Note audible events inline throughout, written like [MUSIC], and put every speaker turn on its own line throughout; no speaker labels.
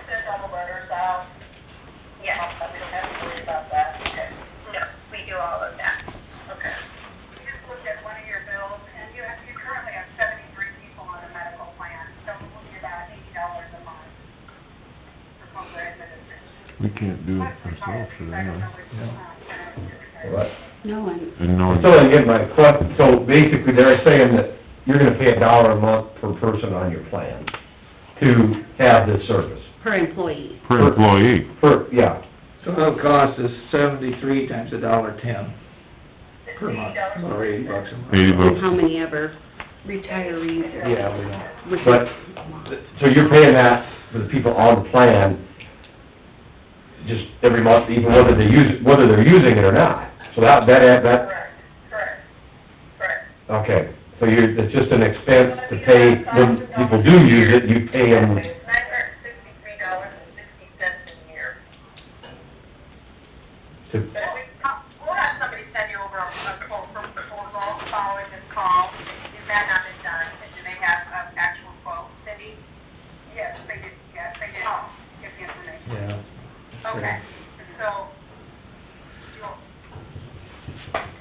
send the letters out?
Yes,
Uh, We don't have to worry about that, okay?
no, we do all of that.
Okay.
We just looked at one of your bills, and you have, you currently have seventy-three people on a medical plan, so we're looking at about eighty dollars a month for Cobra administration.
We can't do it ourselves for
I don't
that.
know which, uh,
What?
No, and
And no,
So I get my question, so basically they're saying that you're gonna pay a dollar a month per person on your plan to have this service.
per employee.
per employee,
Per, yeah,
So it'll cost us seventy-three times a dollar ten
it's
per month,
$80
or eighty bucks a month.
eighty
And how
bucks.
many ever retirees or...
Yeah, we don't.
which is
But-
a lot.
so you're paying that for the people on the plan, just every month, even whether they use, it- whether they're using it or not. So that, that, that,
Correct, correct, correct.
okay, so you're, it's just an expense to pay, when people do use it, you pay them,
Nine hundred and sixty-three dollars and sixty cents a year.
to-
But we, we'll have somebody send you over a quote from the proposal following this call, if that not been done, and do they have an actual quote, Cindy? Yes, they did, yes, they did. Oh, give the information.
Yeah.
Okay, so, you'll,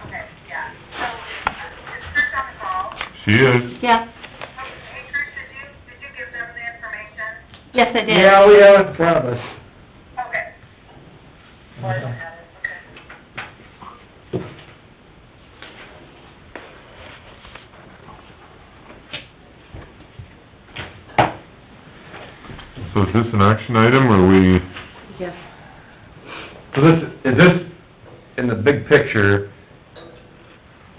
okay, yeah, so, is Trish on the call?
She is,
Yeah,
Hey, Trish, did you, did you give them the information?
yes, I did.
Yeah, we have it in front of us.
Okay.
Or is it not? Okay.
so is this an action item, or we,
Yes.
So this, is this, in the big picture,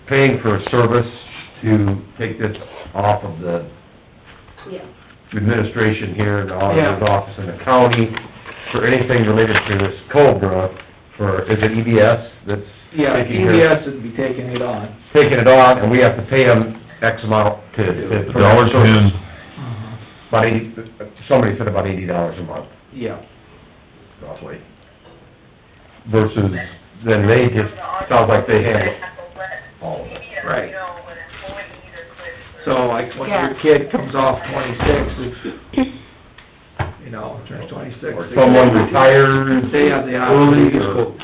paying for a service to take this off of the
Yeah.
administration here, the auditor's
Yeah.
office in the county, for anything related to this Cobra, for, is it EBS that's
Yeah, E
taking care,
EBS would be taking it on.
taking it on, and we have to pay them X amount to, to...
a dollar ten,
About eighty, somebody said about eighty dollars a month,
Yeah.
roughly, versus then they just, sounds like they handle all of it.
Right.
You know, when employee either quits or...
So like when your
Yeah.
kid comes off twenty-six, if, you know, turns twenty-six.
Or
they-
someone retires.
They have the
early,
option to just
or-
go.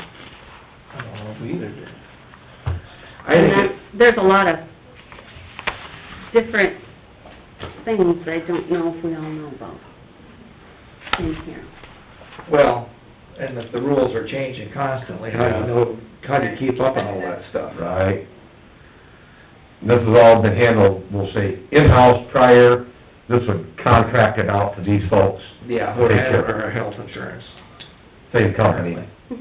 I don't know if we either do. I
And
think
that,
it,
there's a lot of different things I don't know if we all know about in here.
well, and if the rules are changing constantly, how do you know, how do you keep up on all that stuff?
Right. This has all been handled, we'll say, in-house prior, this would contract it out to these folks,
Yeah,
Take
or
care.
or health insurance.
same company,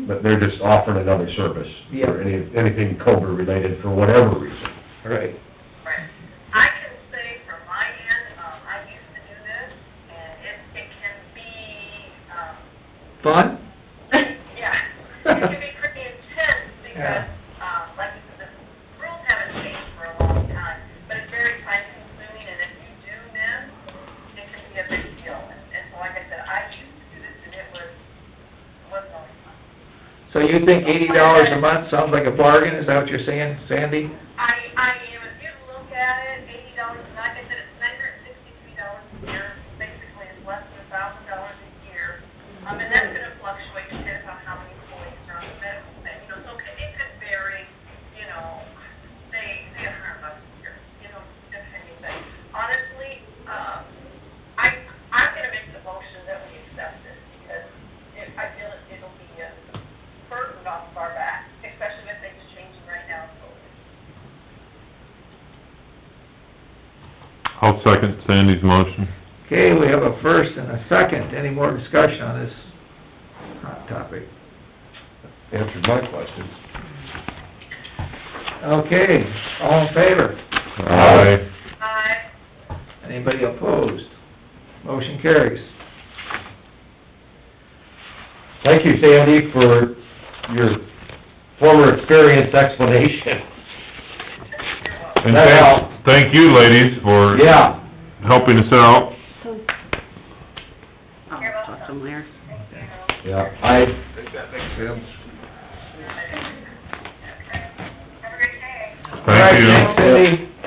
but they're just offering another service.
Yeah.
Or any, anything Cobra related for whatever reason.
Right.
Right. I can say from my end, um, I used to do this, and it, it can be, um, [LAUGHS]
Fun?
yeah, it can be pretty intense,
[LAUGHS]
because, um, like you said, the rules haven't changed for a long time, but it's very time consuming, and if you do miss, it can be a big deal, and, and so like I said, I used to do this, and it was, wasn't always fun.
So you think eighty dollars a month sounds like a bargain, is that what you're saying, Sandy?
I, I am, if you look at it, eighty dollars, like I said, it's nine hundred and sixty-three dollars a year, basically it's less than a thousand dollars a year. Um, and that's gonna fluctuate depending on how many employees are on the medical plan, you know, so it could- it could vary, you know, say, say a hundred bucks a year, you know, depending, but honestly, um, I, I'm gonna make the motion that we accept this, because it, I feel it- it'll be a burden off of our back, especially with things changing right now, with COVID.
I'll second Sandy's motion.
Okay, we have a first and a second, any more discussion on this hot topic?
Answered my question.
Okay, all in favor?
Aye.
Aye.
Anybody opposed? Motion carries.
Thank you, Sandy, for your former experience explanation.
And
That
thank,
helps.
thank you ladies for
Yeah.
helping us out.
So, I'll talk to them later.
Yeah, I,
Thank you.
All right, thanks, Cindy.